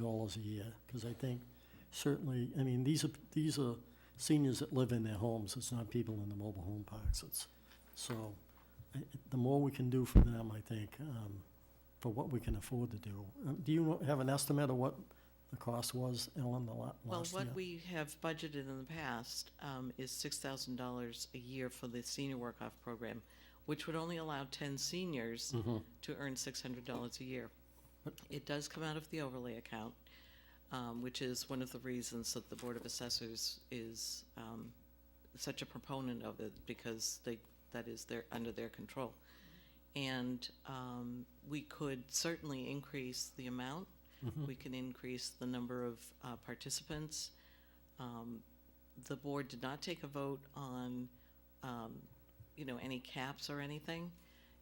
dollars a year, because I think certainly, I mean, these are, these are seniors that live in their homes, it's not people in the mobile home parks, it's, so, I- the more we can do for them, I think, um, for what we can afford to do. Um, Do you have an estimate of what the cost was, Ellen, the la- Well, last year? what we have budgeted in the past um, is six thousand dollars a year for the senior work-off program, which would only allow ten seniors to earn six hundred dollars a year. It does come out of the overlay account, um, which is one of the reasons that the Board of Assessors is um, such a proponent of it, because they, that is their, under their control. And um, we could certainly increase the amount. We can increase the number of uh, participants. Um, The board did not take a vote on, um, you know, any caps or anything.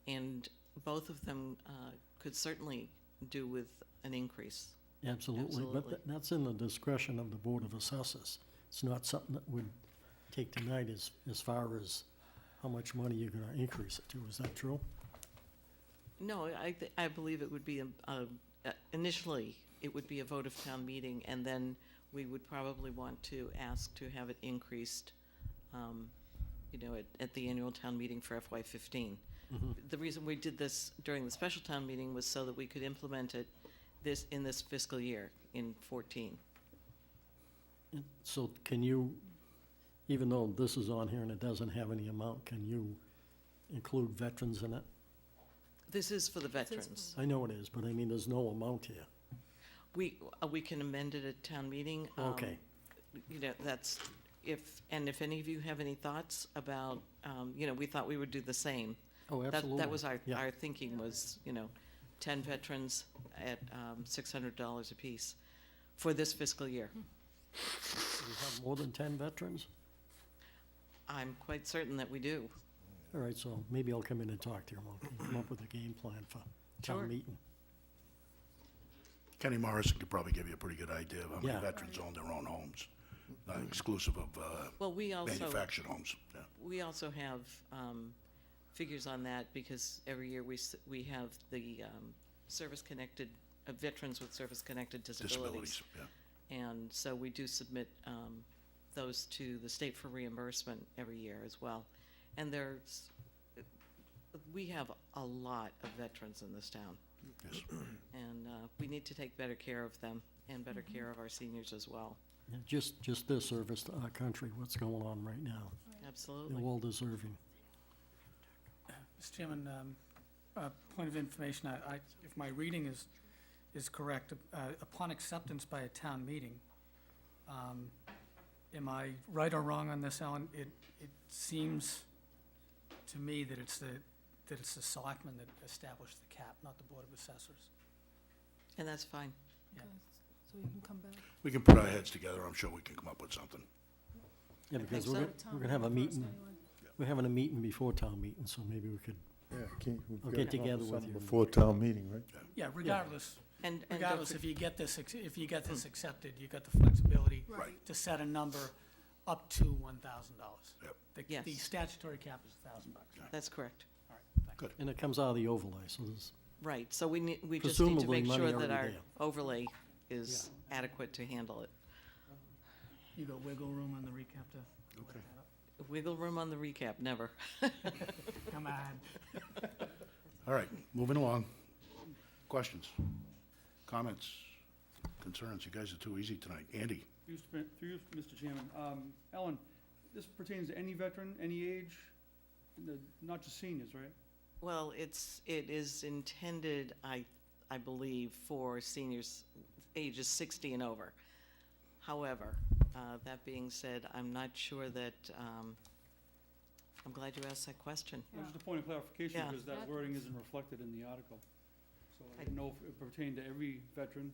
And both of them uh, could certainly do with an increase. Absolutely, but Absolutely. tha- that's in the discretion of the Board of Assessors. It's not something that would take tonight as, as far as how much money you're gonna increase it to, is that true? No, I, th- I believe it would be, a- a- uh, initially, it would be a vote of town meeting, and then we would probably want to ask to have it increased, um, you know, at, at the annual town meeting for FY fifteen. The reason we did this during the special town meeting was so that we could implement it this, in this fiscal year, in fourteen. So can you, even though this is on here and it doesn't have any amount, can you include veterans in it? This is for the veterans. I know it is, but I mean, there's no amount here. We, uh, we can amend it at town meeting. um, Okay. You know, that's, if, and if any of you have any thoughts about, um, you know, we thought we would do the same. Oh, That- absolutely. That was our, Yeah. our thinking was, you know, ten veterans at, um, six hundred dollars apiece for this fiscal year. Do we have more than ten veterans? I'm quite certain that we do. All right, so maybe I'll come in and talk to you, and we'll come up with a game plan for Sure. town meeting. Kenny Morrison could probably give you a pretty good idea of how Yeah. many veterans own their own homes, not exclusive of uh, Well, we also, manufactured homes. Yeah. we also have, um, figures on that because every year we, s- we have the, um, service-connected, uh, veterans with service-connected Disabilities, yeah. And so we do submit um, those to the state for reimbursement every year as well. And there's, we have a lot of veterans in this town, Yes. and uh, we need to take better care of them and better care of our seniors as well. Yeah, Just, just their service to our country, what's going on right now. They're Absolutely. well deserving. Mr. Chairman, um, uh, point of information, I, I- if my reading is, is correct, uh, upon acceptance by a town meeting, um, am I right or wrong on this, Alan? It, it seems to me that it's the, that it's the selectmen that established the cap, not the Board of Assessors. And that's fine. Yeah. Okay, So we can come back. We can put our heads together, I'm sure we can come up with something. Yeah, because we're, so. gonna- we're gonna have a Town meeting first meeting, anyway. we're having a meeting before town meeting, so maybe we could, Yeah, can, we've I'll got get to come up together with something you. Before town meeting, right? Yeah, regardless, And, and don't regardless, for- if you get this, ac- if you get this accepted, you got the flexibility Right. to set a number up to one thousand dollars. Yep. The, Yes. the statutory cap is a thousand bucks. that's correct. All right, thank you. and it comes out of the overlay, so there's, Right, so we need, we just need to Presumably make money sure that already our there. overlay is adequate to handle it. You got wiggle room on the recap to look Okay. that up. Wiggle room on the recap, never. Come on. All right, moving along. Questions? Comments? Concerns? You guys are too easy tonight. Andy? Through you, Sp- through you, Mr. Chairman, um, Ellen, this pertains to any veteran, any age, and the- not just seniors, right? Well, it's, it is intended, I, I believe, for seniors ages 60 and over. However, uh, that being said, I'm not sure that, um, I'm glad you asked that question. Well, Just a point of clarification, Yeah. because that wording isn't reflected in the article. So I didn't know if it pertained to every veteran,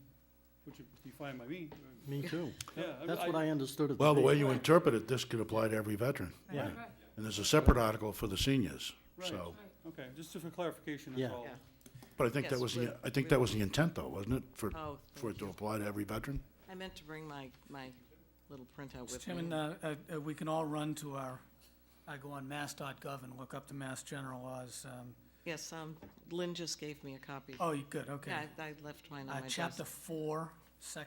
which would be fine by me. or- me too. Yeah, That's what I understood at the. Well, the way meeting. you interpret it, this could apply to every veteran. Yeah, Right, And there's a separate article for the seniors, Right. so. Okay, just for clarification, Yeah. that's all. Yeah. But I think that Yes, was, the we're- I think that was the intent though, wasn't it? For, Oh, for it to apply to every veteran? I meant to bring my, my little printout Mr. with Chairman, me. uh, uh, uh, we can all run to our, I go on mass.gov and look up the Mass General laws. um, Yes, um, Lynn just gave me a copy. Oh, you good, okay. Yeah, I I left mine on Uh, my desk. Chapter four, section